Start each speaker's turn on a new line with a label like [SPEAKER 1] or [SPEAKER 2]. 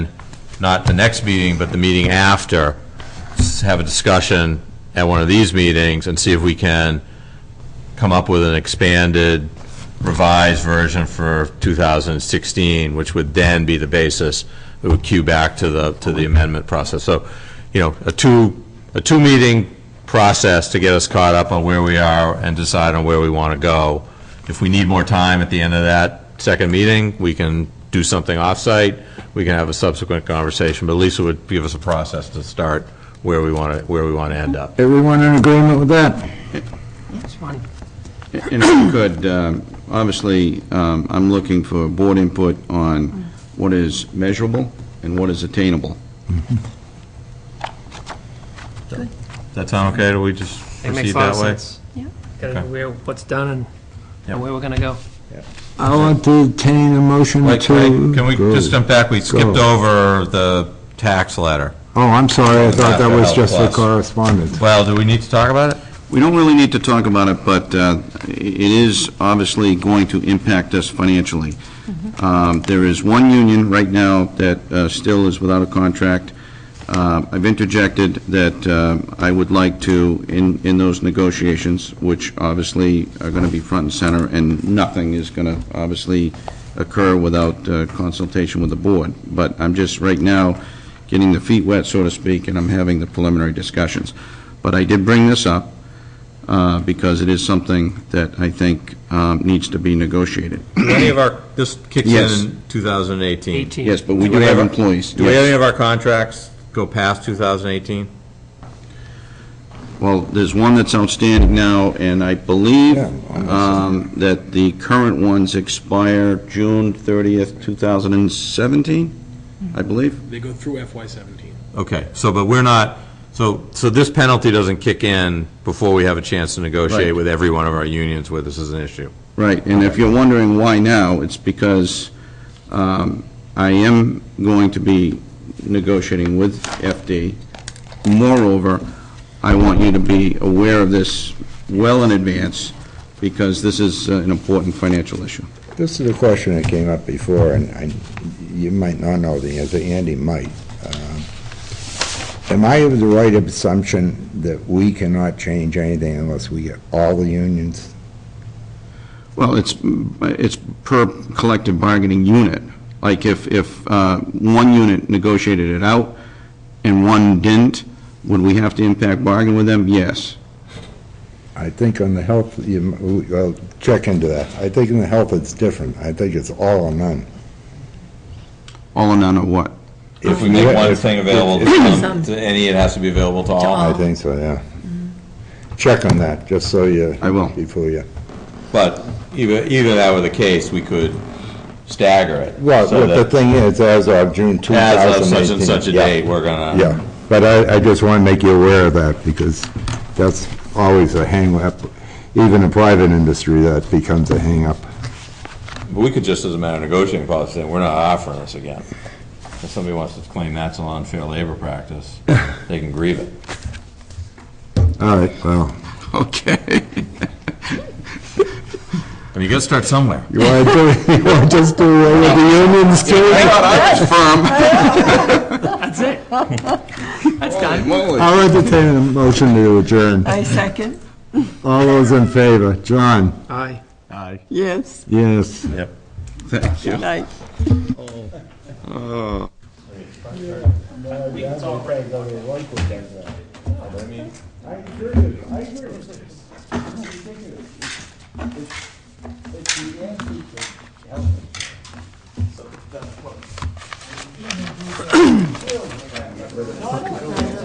[SPEAKER 1] not the next meeting, but the meeting after, s- have a discussion at one of these meetings and see if we can come up with an expanded revised version for 2016, which would then be the basis, it would cue back to the, to the amendment process. So, you know, a two, a two-meeting process to get us caught up on where we are and decide on where we want to go. If we need more time at the end of that second meeting, we can do something off-site, we can have a subsequent conversation, but at least it would give us a process to start where we want to, where we want to end up.
[SPEAKER 2] Everyone in agreement with that?
[SPEAKER 3] It's fun.
[SPEAKER 4] And if you could, um, obviously, um, I'm looking for board input on what is measurable and what is attainable.
[SPEAKER 1] Does that sound okay? Do we just
[SPEAKER 3] It
[SPEAKER 1] proceed
[SPEAKER 3] makes a lot
[SPEAKER 1] that
[SPEAKER 3] of
[SPEAKER 1] way?
[SPEAKER 3] sense.
[SPEAKER 5] Yeah.
[SPEAKER 3] Gotta know
[SPEAKER 1] Okay.
[SPEAKER 3] where, what's done and-
[SPEAKER 1] Yep.
[SPEAKER 3] and where we're gonna go.
[SPEAKER 2] I'll entertain a motion
[SPEAKER 1] Wait,
[SPEAKER 2] to...
[SPEAKER 1] wait, can we just jump back? We skipped
[SPEAKER 2] Go.
[SPEAKER 1] over the tax letter.
[SPEAKER 2] Oh, I'm sorry, I thought that was just the
[SPEAKER 1] Plus.
[SPEAKER 2] correspondence.
[SPEAKER 1] Well, do we need to talk about it?
[SPEAKER 4] We don't really need to talk about it, but uh, it is obviously going to impact us financially. Um, There is one union right now that uh, still is without a contract. Uh, I've interjected that uh, I would like to, in, in those negotiations, which obviously are going to be front and center, and nothing is going to obviously occur without uh, consultation with the board. But I'm just, right now, getting the feet wet, so to speak, and I'm having the preliminary discussions. But I did bring this up uh, because it is something that I think um, needs to be negotiated.
[SPEAKER 1] Any of our, this kicks
[SPEAKER 4] Yes.
[SPEAKER 1] in in 2018.
[SPEAKER 3] 18.
[SPEAKER 4] Yes, but we do have employees.
[SPEAKER 1] Do we
[SPEAKER 4] Yes.
[SPEAKER 1] have any of our contracts go past 2018?
[SPEAKER 4] Well, there's one that's outstanding now, and I believe
[SPEAKER 2] Yeah,
[SPEAKER 4] um, that the current ones expire June 30th, 2017, I believe.
[SPEAKER 6] They go through FY seventeen.
[SPEAKER 1] Okay, so, but we're not, so, so this penalty doesn't kick in before we have a chance to negotiate
[SPEAKER 4] Right.
[SPEAKER 1] with every one of our unions where this is an issue.
[SPEAKER 4] Right, and if you're wondering why now, it's because um, I am going to be negotiating with FD. Moreover, I want you to be aware of this well in advance, because this is uh, an important financial issue.
[SPEAKER 7] This is a question that came up before, and I, you might not know the answer, Andy might. Um, Am I of the right assumption that we cannot change anything unless we get all the unions?
[SPEAKER 4] Well, it's, it's per collective bargaining unit. Like if, if uh, one unit negotiated it out and one didn't, would we have to impact bargain with them? Yes.
[SPEAKER 7] I think on the health, you, well, check into that. I think in the health, it's different. I think it's all or none.
[SPEAKER 4] All or none or what?
[SPEAKER 1] If we make
[SPEAKER 7] you-
[SPEAKER 1] one thing available to some- to any, it has to be available to all.
[SPEAKER 7] I think so, yeah. Check on that, just so you.
[SPEAKER 4] I will.
[SPEAKER 7] Before you.
[SPEAKER 1] But either, either that were the case, we could stagger it.
[SPEAKER 7] Well,
[SPEAKER 1] so
[SPEAKER 7] but the
[SPEAKER 1] that
[SPEAKER 7] thing is, as of June 2018.
[SPEAKER 1] As of such and such a
[SPEAKER 7] yeah.
[SPEAKER 1] date, we're gonna.
[SPEAKER 7] Yeah, but I, I just want to make you aware of that, because that's always a hang-up. Even in private industry, that becomes a hang-up.
[SPEAKER 1] We could just, as a matter of negotiating policy, say, we're not offering this again. If somebody wants to claim that's an unfair labor practice, they can grieve it.
[SPEAKER 7] All right, well,
[SPEAKER 4] Okay.
[SPEAKER 1] I mean, you gotta start somewhere.
[SPEAKER 7] you want to do, you want to just do away with the unions too?
[SPEAKER 3] That's it. That's done.
[SPEAKER 7] I'll entertain a motion to adjourn.
[SPEAKER 5] I second,
[SPEAKER 7] All those in favor? John?
[SPEAKER 3] Aye.
[SPEAKER 5] yes,
[SPEAKER 7] Yes.
[SPEAKER 5] good night.